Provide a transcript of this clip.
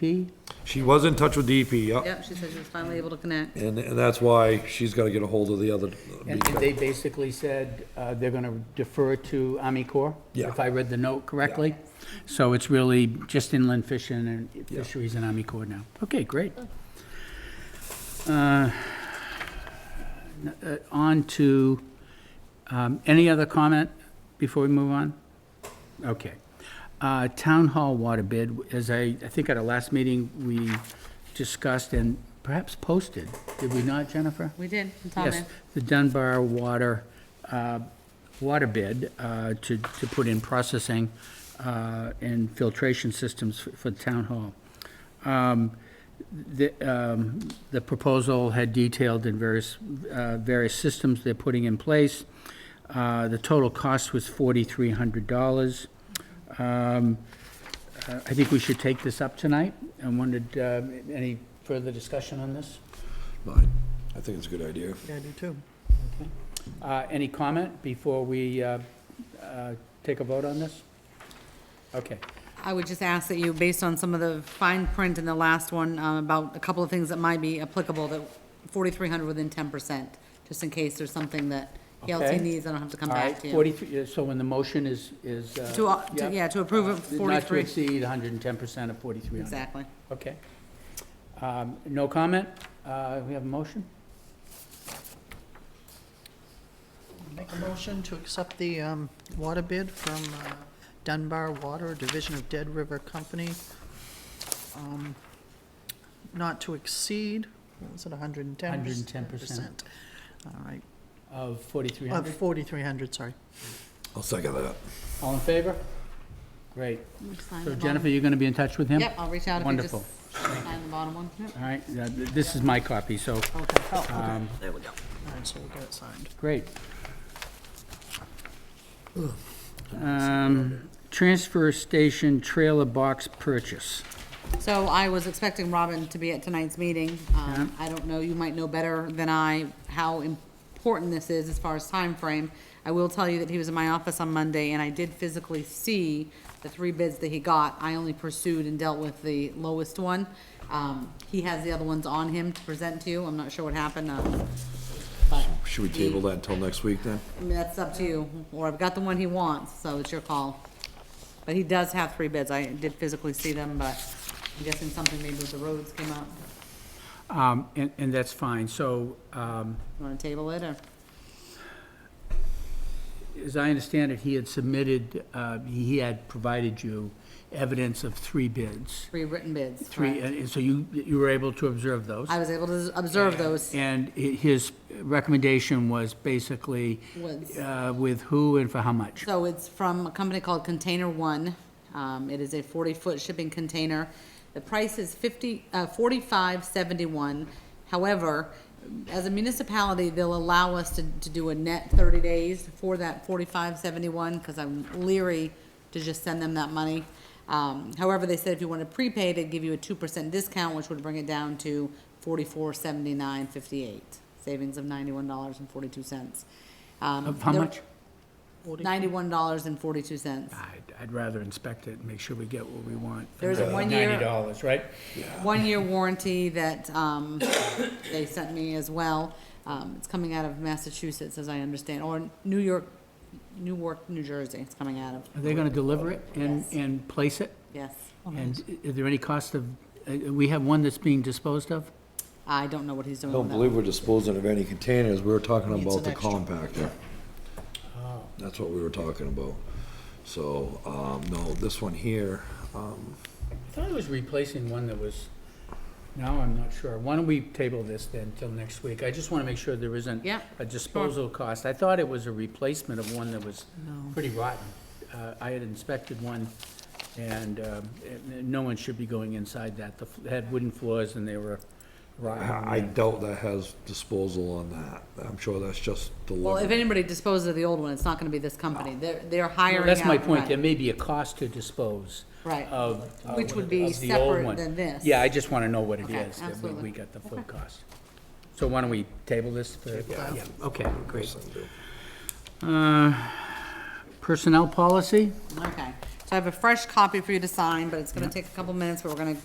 B? She was in touch with DP, yeah, Yep, she said she was finally able to connect. and, and that's why she's gotta get a hold of the other. And and they basically said uh, they're going to defer to Army Corps? Yeah. If I read the note correctly? So it's really just inland fishing and fisheries and Army Corps now. Okay, great. Uh, n- uh, On to, um, any other comment before we move on? Okay. Uh, Town Hall water bid, as I, I think at our last meeting, we discussed and perhaps posted, did we not, Jennifer? We did, it's on Yes, there. the Dunbar water, uh, water bid uh, to, to put in processing uh, and filtration systems f- for the town hall. Um, The, um, the proposal had detailed in various, uh, various systems they're putting in place. Uh, The total cost was forty-three hundred dollars. Um, uh, I think we should take this up tonight. I wondered, uh, any further discussion on this? I think it's a good idea. Yeah, I do too. Uh, Any comment before we uh, uh, take a vote on this? Okay, I would just ask that you, based on some of the fine print in the last one, uh, about a couple of things that might be applicable, that forty-three hundred within ten percent, just in case there's something that Okay. Yelsey needs, I don't have to come all right, back to you. 43, so when the motion is, is... uh, To, uh, to- yeah, to approve of Not to forty-three, exceed 110% of 4,300. exactly. Okay. Um, No comment? Uh, We have a motion? Make a motion to accept the um, water bid from uh, Dunbar Water, Division of Dead River Company, um, not to exceed, what was it, 110? 110%. All right, Of Uh, 4,300? 4,300, sorry. I'll second that. All in favor? Great. Sign So the Jennifer, bottom. you're going to be in touch with him? Yep, I'll reach out if you Wonderful. just sign the bottom one. Yep. All right, uh, th- this is my copy, so, Okay, oh, okay, Um, there we go. All right, so we'll get it signed. great. Um, Transfer station trailer box purchase. So I was expecting Robin to be at tonight's meeting. Um, I don't know, you might know better than I how important this is as far as time frame. I will tell you that he was in my office on Monday, and I did physically see the three bids that he got. I only pursued and dealt with the lowest one. Um, He has the other ones on him to present to you. I'm not sure what happened, um, but Should we table that until next week then? I mean, that's up to you, or I've got the one he wants, so it's your call. But he does have three bids, I did physically see them, but I'm guessing something maybe with the roads came up. Um, And, and that's fine, so um, You wanna table it, or? as I understand it, he had submitted, uh, he had provided you evidence of three bids. Three written bids, Three, uh, correct? and and so you, you were able to observe those? I was able to observe those, And i- his recommendation was basically Was- uh, with who and for how much? so it's from a company called Container One, um, it is a forty-foot shipping container. The price is fifty, uh, forty-five seventy-one, however, as a municipality, they'll allow us to, to do a net thirty days for that forty-five seventy-one, cause I'm leery to just send them that money. Um, however, they said if you want to prepay, they'd give you a two percent discount, which would bring it down to forty-four seventy-nine fifty-eight, savings of ninety-one dollars and forty-two cents. Um, Of how much? Ninety-one dollars and forty-two cents. I'd, I'd rather inspect it and make sure we get what we want. for There's a the one-year- Ninety dollars, right? One-year warranty that, um, they sent me as well. Um, it's coming out of Massachusetts, as I understand, or New York, Newark, New Jersey, it's coming out of, Are they gonna deliver it and, Yes. and place it? yes. And i- is there any cost of, uh, we have one that's being disposed of? I don't know what he's I doing don't with that. believe we're disposing of any containers, we were talking Needs about an the extra. Oh. compactor. That's what we were talking about. So, um, no, this one here, um, I thought it was replacing one that was, now I'm not sure. Why don't we table this then till next week? I just wanna make sure there isn't Yeah, a disposal cost. I thought it was a replacement of one that was pretty rotten. Uh, I had inspected one and, um, it- it- no one should be going inside that. The, f- it had wooden floors and they were rotten. I I doubt that has disposal on that, I'm sure that's just Well, if delivery. anybody disposes of the old one, it's not gonna be this company. Ah. They're, they're hiring Well, out. That's my point, right. there may be a cost to dispose Right. of. uh, Which would be of the old separate one. than this. Yeah, I just want to know what it Okay, is, that we- absolutely. we got the full cost. So why don't we table this for? Yeah, Okay, great. Uh, Personnel policy? Okay, so I have a fresh copy for you to sign, but it's gonna take a couple minutes, but we're gonna